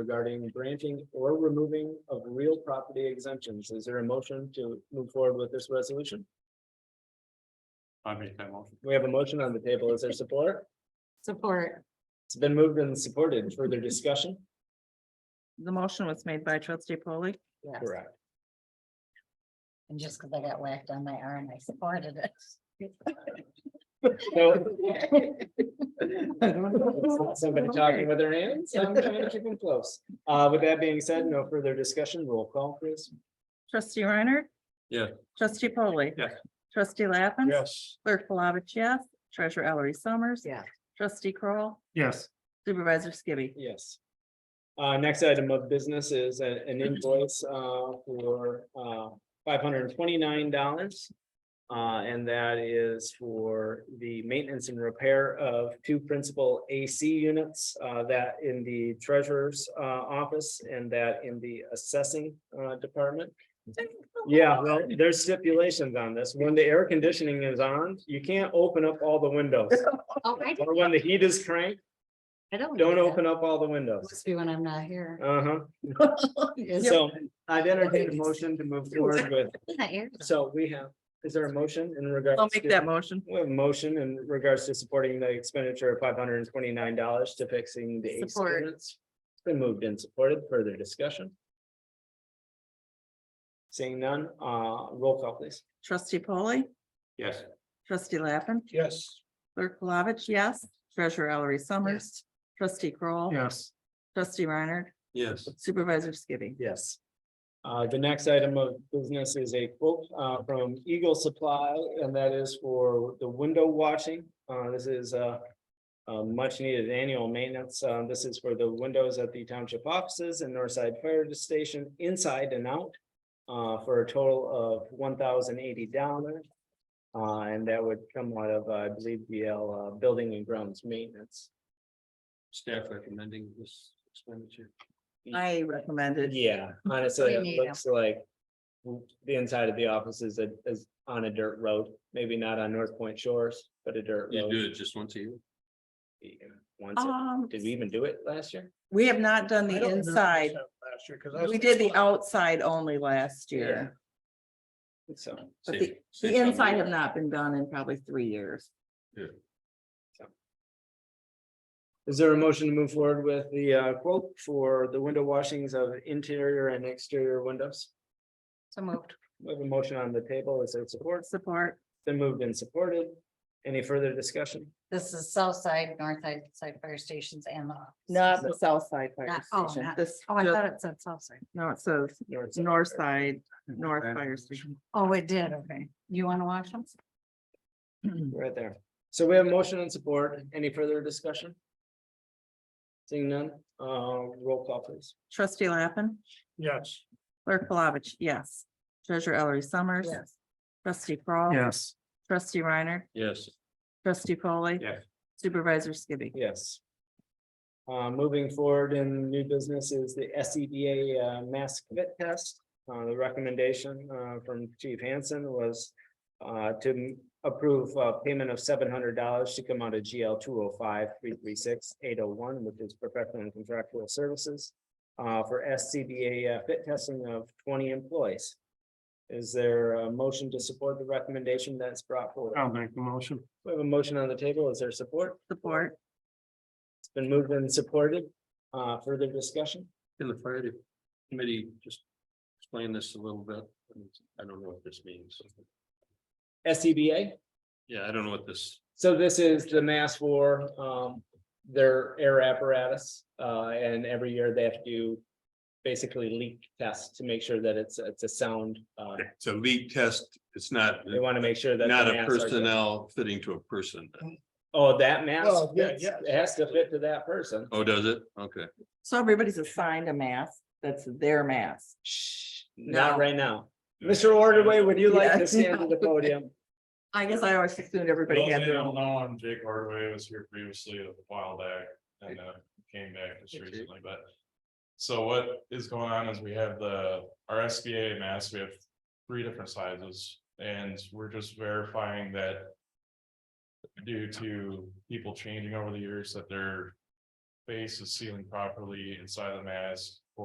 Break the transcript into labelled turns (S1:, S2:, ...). S1: regarding granting or removing of real property exemptions. Is there a motion to move forward with this resolution?
S2: I make that motion.
S1: We have a motion on the table. Is there support?
S3: Support.
S1: It's been moved and supported. Further discussion?
S4: The motion was made by trustee polley
S3: Yes.
S1: Correct.
S3: And just because I got whacked on my arm, I supported it.
S1: So Somebody talking with their hands, I'm trying to keep them close. Uh, with that being said, no further discussion, roll call, please.
S4: Trustee Reiner.
S2: Yeah.
S4: Trustee polley
S2: Yes.
S4: Trustee Lappin.
S2: Yes.
S4: Clerk Palovich, yes. Treasurer Ellery Summers.
S3: Yeah.
S4: Trustee Kroll,
S2: Yes.
S4: Supervisor Skibby.
S1: Yes. Uh, next item of business is a- an invoice, uh, for, uh, five hundred and twenty-nine dollars. Uh, and that is for the maintenance and repair of two principal AC units, uh, that in the treasurer's, uh, office and that in the assessing, uh, department. Yeah, well, there's stipulations on this. When the air conditioning is on, you can't open up all the windows.
S3: Oh, I
S1: Or when the heat is cranked,
S3: don't.
S1: don't open up all the windows.
S3: Must be when I'm not here.
S1: Uh-huh.
S3: Is
S1: So I'd entertain a motion to move forward with,
S3: it not here?
S1: so we have, is there a motion in regards?
S4: I'll make
S1: to-
S4: that motion.
S1: We have a motion in regards to supporting the expenditure of five hundred and twenty-nine dollars to fixing the AC
S4: Support.
S1: units. It's Been moved and supported. Further discussion? Seeing none, uh, roll call please.
S4: Trustee polley
S2: Yes.
S4: Trustee Lappin.
S2: Yes.
S4: Clerk Palovich, yes. Treasurer Ellery Summers. Trustee Kroll,
S2: Yes.
S4: Trustee Reiner.
S2: Yes.
S4: Supervisor Skibby.
S1: Yes. Uh, the next item of business is a quote, uh, from Eagle Supply, and that is for the window washing. Uh, this is, uh, uh, much needed annual maintenance. Uh, this is for the windows at the township offices and Northside Fire Station inside and out. Uh, for a total of one thousand eighty dollars. Uh, and that would come out of, I believe, the, uh, building and grounds maintenance.
S2: Staff recommending this expenditure.
S4: I recommend it.
S1: Yeah, honestly,
S3: We
S1: it
S3: need 'em.
S1: looks like the inside of the office is a, is on a dirt road, maybe not on North Point Shores, but a dirt
S2: You do
S1: road.
S2: it just once a year.
S1: Once, it-
S4: Um,
S1: did we even do it last year?
S4: we have not done the inside. We did the outside only last year,
S1: So,
S4: but
S2: Save-
S4: the,
S2: save
S4: the
S2: some
S4: inside have
S2: money.
S4: not been done in probably three years.
S1: is there a motion to move forward with the uh quote for the window washings of interior and exterior windows?
S3: So moved.
S1: We have a motion on the table, is there support?
S4: Support,
S1: Then moved and supported. Any further discussion?
S3: This is south side, north side, side fire stations and the.
S4: not the south side fire
S3: Not- oh,
S4: station,
S3: not-
S4: this,
S3: Oh, I
S4: just-
S3: thought it said south side.
S4: no, it says
S1: North side.
S4: north side, north
S2: Okay.
S4: fire station.
S3: Oh, it did. Okay. You want to watch them?
S1: Right there. So we have motion and support. Any further discussion? Seeing none, uh, roll call please.
S4: Trustee Lappin,
S2: Yes.
S4: clerk Palovich, yes. Treasurer Ellery Summers.
S3: Yes.
S4: Trustee Crawl.
S2: Yes.
S4: Trustee Reiner,
S2: Yes.
S4: trustee polley
S2: Yes.
S4: Supervisor Skibby.
S1: Yes. Uh, moving forward in new business is the S E D A uh mask fit test. Uh, the recommendation uh from Chief Hansen was uh to approve uh payment of seven hundred dollars to come out of GL two oh five three three six eight oh one, which is professional and contractual services uh for S C B A uh, fit testing of twenty employees. Is there a motion to support the recommendation that's brought forward?
S2: I'll make the motion.
S1: We have a motion on the table. Is there support?
S4: Support,
S1: It's been moved and supported. Uh, further discussion?
S2: Can the fire de- committee just explain this a little bit? I don't know what this means.
S1: SCBA,
S2: Yeah, I don't know what this,
S1: E so this is the mass for, um, their air apparatus. Uh, and every year they have to do basically leak tests to make sure that it's, it's a sound. Uh,
S5: It's a leak test. It's not,
S1: they want to make sure that. the
S5: not a uh,
S1: masks are-
S5: personnel fitting to a person.
S1: Oh, that mask,
S6: Well, yeah,
S1: fits-
S6: yes.
S1: it has to fit to that person.
S5: Oh, does it? Okay.
S4: so everybody's assigned a mask, that's their mask.
S1: Shh, not
S4: No.
S1: right now. Mr. Orderway, would you like
S4: Yeah.
S1: to stand to the podium?
S4: I guess I always assumed everybody
S6: Those
S4: had
S6: that
S4: their own.
S6: don't know, I'm Jake Hardaway, was here previously a while back, and uh, came back just
S2: Jake.
S6: recently, but. So what is going on is we have the, our SBA masks, we have three different sizes, and we're just verifying that. Due to people changing over the years that their face is sealing properly inside the mask.